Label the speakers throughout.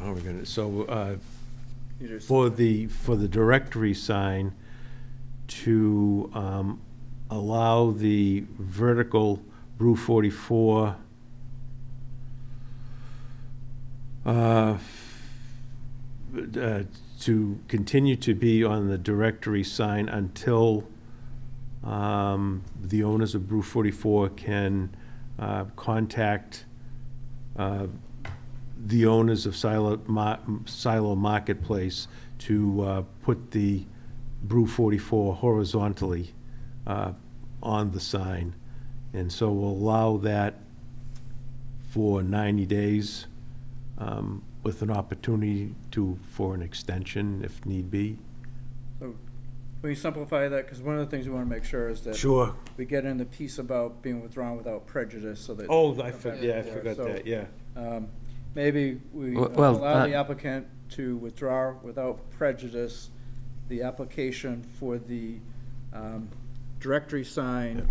Speaker 1: are we Oh, gonna, so, uh,
Speaker 2: These are-
Speaker 1: for the, for the directory sign to, um, allow the vertical Brew forty-four, uh, uh, to continue to be on the directory sign until, um, the owners of Brew forty-four can, uh, contact, uh, the owners of Silo, Ma- Silo Marketplace to uh, put the Brew 44 horizontally uh, on the sign. And so we'll allow that for 90 days um, with an opportunity to, for an extension if need be.
Speaker 2: Will you simplify that? Because one of the things we want to make sure is that
Speaker 1: Sure.
Speaker 2: we get in the piece about being withdrawn without prejudice so that.
Speaker 1: Oh, I
Speaker 2: Come back
Speaker 1: forgot, yeah, I
Speaker 2: for it.
Speaker 1: forgot
Speaker 2: So,
Speaker 1: that, yeah.
Speaker 2: um, Maybe we
Speaker 3: Well- well,
Speaker 2: allow the
Speaker 3: uh,
Speaker 2: applicant to withdraw without prejudice the application for the um, directory sign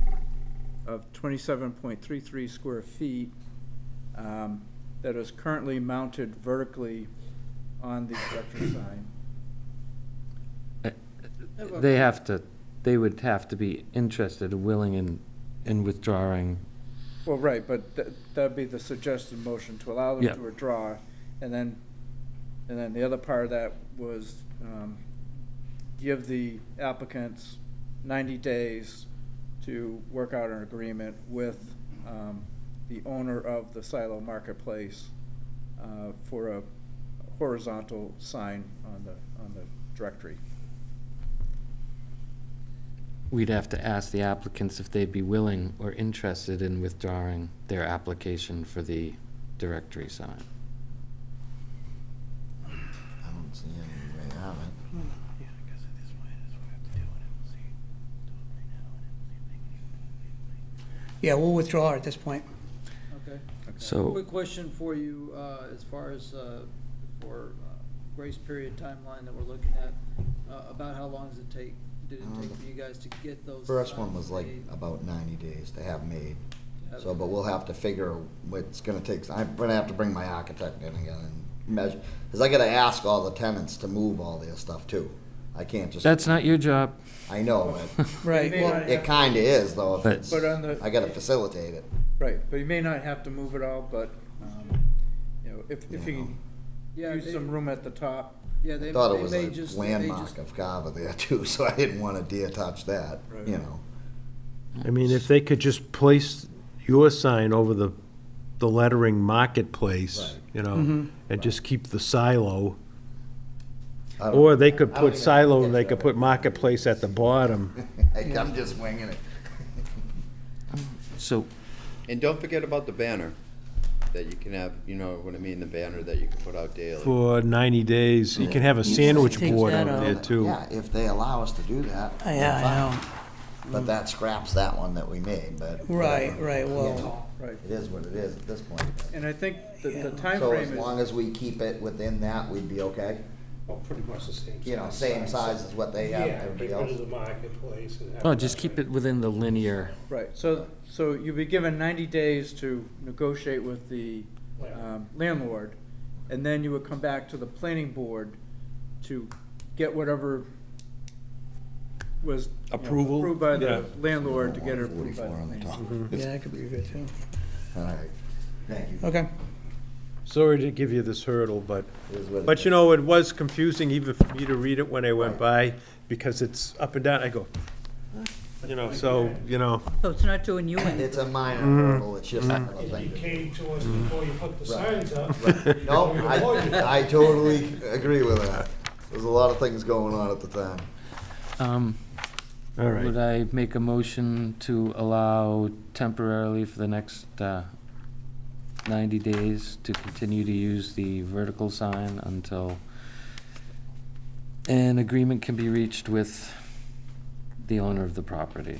Speaker 2: of 27.33 square feet um, that is currently mounted vertically on the directory sign.
Speaker 3: They have to, they would have to be interested, willing in, in withdrawing.
Speaker 2: Well, right, but tha- that'd be the suggested motion, to allow
Speaker 3: Yeah.
Speaker 2: them to withdraw, and then, and then the other part of that was um, give the applicants 90 days to work out an agreement with um, the owner of the Silo Marketplace uh, for a horizontal sign on the, on the directory.
Speaker 3: We'd have to ask the applicants if they'd be willing or interested in withdrawing their application for the directory sign.
Speaker 4: I don't see any way out of it.
Speaker 5: Yeah, we'll withdraw at this point.
Speaker 6: Okay.
Speaker 3: So,
Speaker 6: Quick question for you, uh, as far as, uh, for uh, grace period timeline that we're looking at, uh, about how long does it take? Did it take for you guys to get those?
Speaker 4: First one
Speaker 6: signs
Speaker 4: was like
Speaker 6: made?
Speaker 4: about ninety days to have made,
Speaker 6: Have-
Speaker 4: so, but we'll have to figure what's gonna take, I'm gonna have to bring my architect in again and measure, cause I gotta ask all the tenants to move all their stuff too. I can't just,
Speaker 3: that's not your job.
Speaker 4: I know, but
Speaker 5: Right,
Speaker 2: Maybe
Speaker 5: well,
Speaker 2: not.
Speaker 4: it kinda is though, if
Speaker 3: But-
Speaker 4: it's,
Speaker 2: But on the-
Speaker 4: I gotta facilitate it.
Speaker 2: Right, but you may not have to move it all, but, um, you know, if, if you
Speaker 6: Yeah,
Speaker 2: use
Speaker 6: they-
Speaker 2: some room at the top,
Speaker 6: Yeah, they,
Speaker 4: I thought it
Speaker 6: they
Speaker 4: was
Speaker 6: may just,
Speaker 4: a
Speaker 6: they
Speaker 4: landmark
Speaker 6: just,
Speaker 4: of Carver there too, so I didn't want a deer touch that,
Speaker 2: Right.
Speaker 4: you know.
Speaker 1: I mean, if they could just place your sign over the, the lettering marketplace,
Speaker 4: Right.
Speaker 1: you
Speaker 5: Mm-hmm.
Speaker 1: know, and just keep the silo.
Speaker 4: I don't-
Speaker 1: Or they could
Speaker 4: I don't
Speaker 1: put
Speaker 4: even
Speaker 1: silo,
Speaker 4: think
Speaker 1: and they could put marketplace at the bottom.
Speaker 4: I- I'm just winging it.
Speaker 3: So,
Speaker 7: And don't forget about the banner that you can have, you know what I mean, the banner that you can put out daily.
Speaker 1: For 90 days, you can have a sandwich
Speaker 5: Take
Speaker 1: board
Speaker 5: that
Speaker 1: out there,
Speaker 5: out.
Speaker 1: too.
Speaker 4: Yeah, if they allow us to do that.
Speaker 5: Oh, yeah,
Speaker 4: then fine.
Speaker 5: I know.
Speaker 4: But that scraps that one that we made, but.
Speaker 5: Right, right, well-
Speaker 4: You know,
Speaker 2: right,
Speaker 4: It is what it is at this point.
Speaker 2: And I think the, the
Speaker 4: So as long
Speaker 2: timeframe is,
Speaker 4: as we keep it within that, we'd be okay?
Speaker 8: Well, pretty much the same.
Speaker 4: You know, same size as what they
Speaker 8: Yeah,
Speaker 4: have,
Speaker 8: get
Speaker 4: everybody
Speaker 8: rid
Speaker 4: else.
Speaker 8: of the marketplace and have.
Speaker 3: no, just keep it within the linear.
Speaker 2: right, so, so you'll be given ninety days to negotiate with the
Speaker 3: uh,
Speaker 2: um, landlord, and then you would come back to the planning board to get whatever was. you know,
Speaker 1: Approval?
Speaker 2: Approved by
Speaker 1: Yeah.
Speaker 2: the landlord to get it approved by the
Speaker 4: Forty-four on the
Speaker 2: planning.
Speaker 4: top.
Speaker 5: Mm-hmm. yeah, that could be good too.
Speaker 4: All right, thank you.
Speaker 5: Okay,
Speaker 1: Sorry to give you this hurdle, but,
Speaker 4: It is what it
Speaker 1: but you
Speaker 4: is.
Speaker 1: know, it was confusing even for me to read it when I went by, because it's up and down, I go, you know, so, you know.
Speaker 9: So it's not doing you any.
Speaker 4: It's a minor
Speaker 1: Mm-hmm.
Speaker 4: hurdle, it's just another
Speaker 8: If
Speaker 4: thing.
Speaker 8: Mm-hmm. you
Speaker 4: to do.
Speaker 8: came to us before you put the
Speaker 4: Mm. Right.
Speaker 8: signs up.
Speaker 4: Right. No,
Speaker 8: we avoided it.
Speaker 4: I, I totally agree with that. There's a lot of things going on at the time.
Speaker 3: Um,
Speaker 1: All right.
Speaker 3: Would I make a motion to allow temporarily for the next uh, 90 days to continue to use the vertical sign until an agreement can be reached with the owner of the property?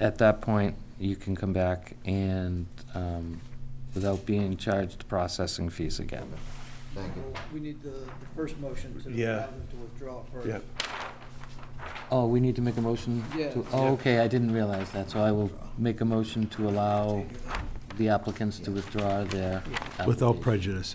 Speaker 3: At that point, you can come back and, um, without being charged processing fees again.
Speaker 4: Thank you.
Speaker 6: we need the, the first motion to
Speaker 1: Yeah.
Speaker 6: allow them to withdraw first.
Speaker 1: Yep.
Speaker 3: Oh, we need to make a motion? to-
Speaker 6: Yeah.
Speaker 3: Oh, okay, I didn't realize that, so I will make a motion to allow the applicants to withdraw their application.
Speaker 1: Without prejudice.